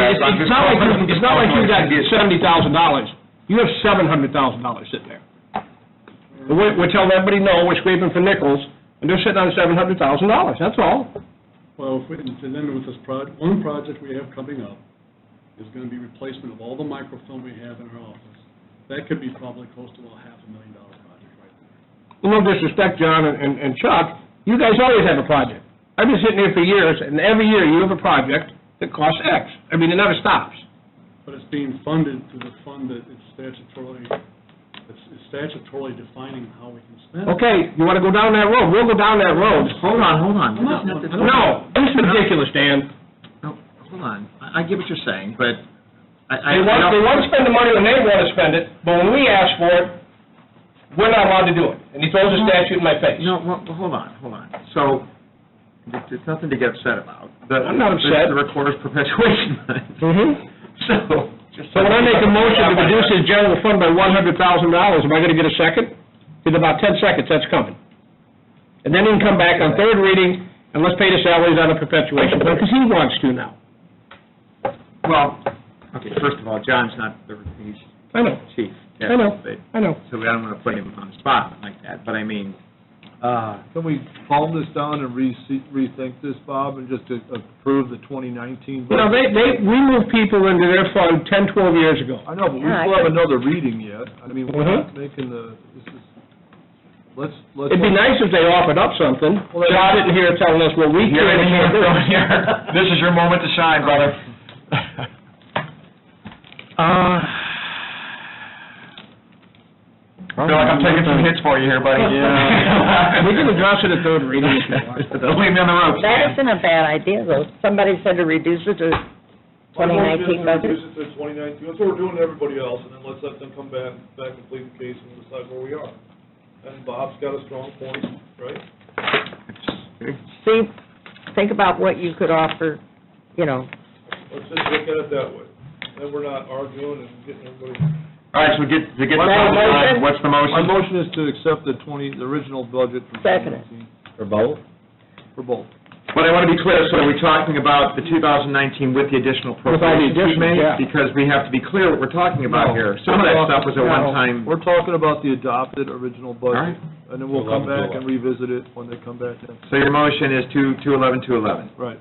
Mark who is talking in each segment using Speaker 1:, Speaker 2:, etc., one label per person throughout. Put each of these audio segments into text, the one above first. Speaker 1: it's,
Speaker 2: I'm just
Speaker 1: it's not like,
Speaker 2: confident-
Speaker 1: you- it's not like you got
Speaker 2: confident it's-
Speaker 1: seventy thousand dollars, you have seven hundred thousand dollars sitting there. And We're, we're telling everybody, no, we're scraping for nickels, and they're sitting on seven hundred thousand dollars, that's all.
Speaker 3: Well, if we, and then with this proj, one project we have coming up is gonna be replacement of all the microfilm we have in our office. That could be probably close to a half a million dollar project right there.
Speaker 1: No disrespect, John and- and, and Chuck, you guys always have a project. I've been sitting here for years, and every year you have a project that costs X, I mean, it never stops.
Speaker 3: But it's being funded through the fund that it's statutorily, it's it's statutorily defining how we can spend. it.
Speaker 1: Okay, you wanna go down that road, we'll go down that road.
Speaker 4: Hold on, hold on.
Speaker 3: I'm not-
Speaker 4: This is-
Speaker 1: No, this is ridiculous, Dan.
Speaker 4: No, hold on. I, I get what you're saying, but I, I.
Speaker 1: They want,
Speaker 4: I-
Speaker 1: they want to spend the money when they want to spend it, but when we ask for it, we're not allowed to do it. And he throws a statute in my face.
Speaker 4: No, well, well, hold on, hold on. So, it- it's nothing to get upset about. The-
Speaker 1: I'm not
Speaker 4: it's
Speaker 1: upset. Mm-hmm.
Speaker 4: The recorder's perpetuation fund. So.
Speaker 1: So when I make a motion to reduce his general fund by one hundred thousand dollars, am I gonna get a second? In about ten seconds, that's coming. And then he can come back on third reading, and let's pay the salaries on the perpetuation fund, because he wants to now.
Speaker 4: Well, okay, first of all, John's not the, he's
Speaker 1: I know,
Speaker 4: chief.
Speaker 1: I know,
Speaker 4: but-
Speaker 1: I know.
Speaker 4: So I don't want to put him on the spot like that, but I mean, uh,
Speaker 5: Can we calm this down and rese- rethink this, Bob, and just to approve the 2019
Speaker 1: You know,
Speaker 5: budget?
Speaker 1: they, they, we moved people into their fund ten, twelve years ago.
Speaker 5: I know, but we
Speaker 6: Yeah, I
Speaker 5: still have
Speaker 6: could-
Speaker 5: another reading yet. I mean, we're
Speaker 1: Mhm.
Speaker 5: not making the, this is, let's, let's...
Speaker 1: It'd be nice if they offered up something.
Speaker 5: Well, they-
Speaker 1: John didn't hear telling us, well, we
Speaker 2: You're
Speaker 1: can't.
Speaker 2: in here, you're in here. This is your moment to shine, brother.
Speaker 4: Uh,
Speaker 2: Feel like I'm taking some hits for you here, buddy.
Speaker 1: Yeah. We can address it at third reading if you want.
Speaker 2: Don't leave me on the ropes.
Speaker 6: That isn't a bad idea, though. Somebody said to reduce it to 2019 budget.
Speaker 7: Reduce it to 2019, that's what we're doing to everybody else, and then let's let them come back, back and plead the case and decide where we are. And Bob's got a strong point, right?
Speaker 6: See, think about what you could offer, you know,
Speaker 7: Let's just look at it that way, then we're not arguing and getting everybody.
Speaker 2: All right, so get, to get,
Speaker 6: My motion?
Speaker 2: what's the motion?
Speaker 5: My motion is to accept the 20, the original budget for
Speaker 6: Second it.
Speaker 5: 2019,
Speaker 4: for both?
Speaker 5: for both.
Speaker 4: But I want to be clear, so are we talking about the 2019 with the additional
Speaker 1: all the
Speaker 4: appropriations we
Speaker 1: additions,
Speaker 4: made?
Speaker 1: yeah.
Speaker 4: Because we have to be clear what we're talking about
Speaker 5: No.
Speaker 4: here. Some of that stuff was a one-time,
Speaker 5: We're talking about the adopted original budget,
Speaker 4: Alright.
Speaker 5: and then we'll come back and revisit it when they come back next,
Speaker 4: so your motion is 2, 211, 211.
Speaker 5: right.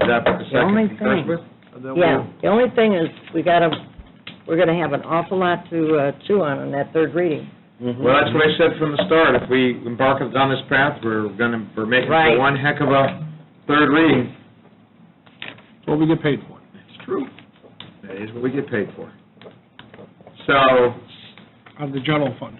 Speaker 4: Is that what the
Speaker 6: The
Speaker 4: second
Speaker 6: only
Speaker 4: concurs
Speaker 6: thing-
Speaker 4: with?
Speaker 5: And then
Speaker 6: yeah.
Speaker 5: we'll,
Speaker 6: The only thing is, we gotta, we're gonna have an awful lot to uh, chew on in that third reading.
Speaker 4: Well, that's what I said from the start, if we embark on this path, we're gonna, we're making
Speaker 6: Right.
Speaker 4: for one heck of a third reading.
Speaker 5: what we get paid for.
Speaker 4: It's true. That is what we get paid for. So,
Speaker 1: Of the general fund.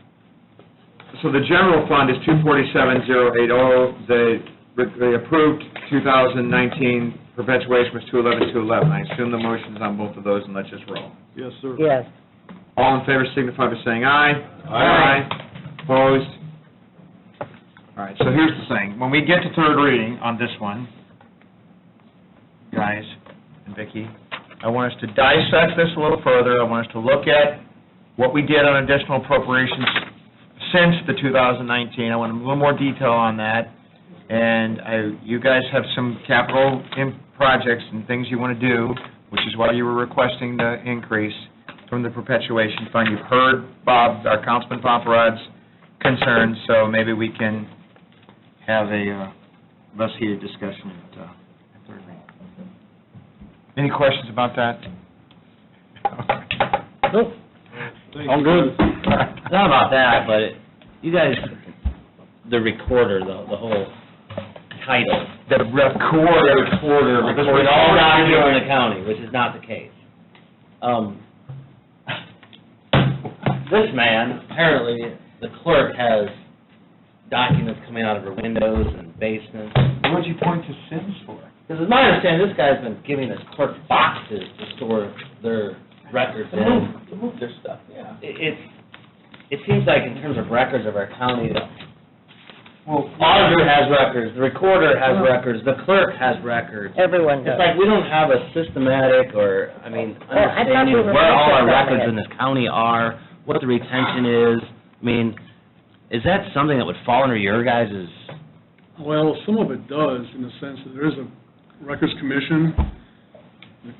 Speaker 4: So the general fund is two forty-seven, zero eight oh, the, the approved two thousand nineteen perpetuation was two eleven, two eleven. I assume the motion's on both of those, and let's just roll.
Speaker 5: Yes, sir.
Speaker 6: Yes.
Speaker 4: All in favor signify by saying aye.
Speaker 6: Aye.
Speaker 4: Opposed? All right, so here's the thing, when we get to third reading on this one, guys and Vicki, I want us to dissect this a little further, I want us to look at what we did on additional appropriations since the 2019, I want a little more detail on that, and I, you guys have some capital in projects and things you want to do, which is why you were requesting the increase from the perpetuation fund. You've heard Bob, our Councilman Paparad's concerns, so maybe we can have a uh, less heated discussion at uh, at third reading. Any questions about that?
Speaker 1: Nope. All good.
Speaker 8: Not about that, but it- you guys, the recorder, the, the whole title.
Speaker 4: The recorder. Recorder.
Speaker 8: Because we're all down here in the county, which is not the case. Um, this man, apparently, the clerk has documents coming out of her windows and basements.
Speaker 2: What'd you point to Sims for?
Speaker 8: Because it's my understanding, this guy's been giving his clerk boxes to store their records in.
Speaker 2: to move their stuff, yeah.
Speaker 8: It, it's, it seems like in terms of records of our county, the
Speaker 2: Well,
Speaker 8: auditor has records, the recorder has records, the clerk has records.
Speaker 6: Everyone
Speaker 8: It's
Speaker 6: does.
Speaker 8: like we don't have a systematic or, I mean,
Speaker 6: Well, I thought we
Speaker 8: understanding
Speaker 6: were
Speaker 8: where all our
Speaker 6: looking at
Speaker 8: records
Speaker 6: it.
Speaker 8: in this county are, what the retention is. I mean, is that something that would fall under your guys'
Speaker 3: Well, some of it does, in the sense that there is a records commission,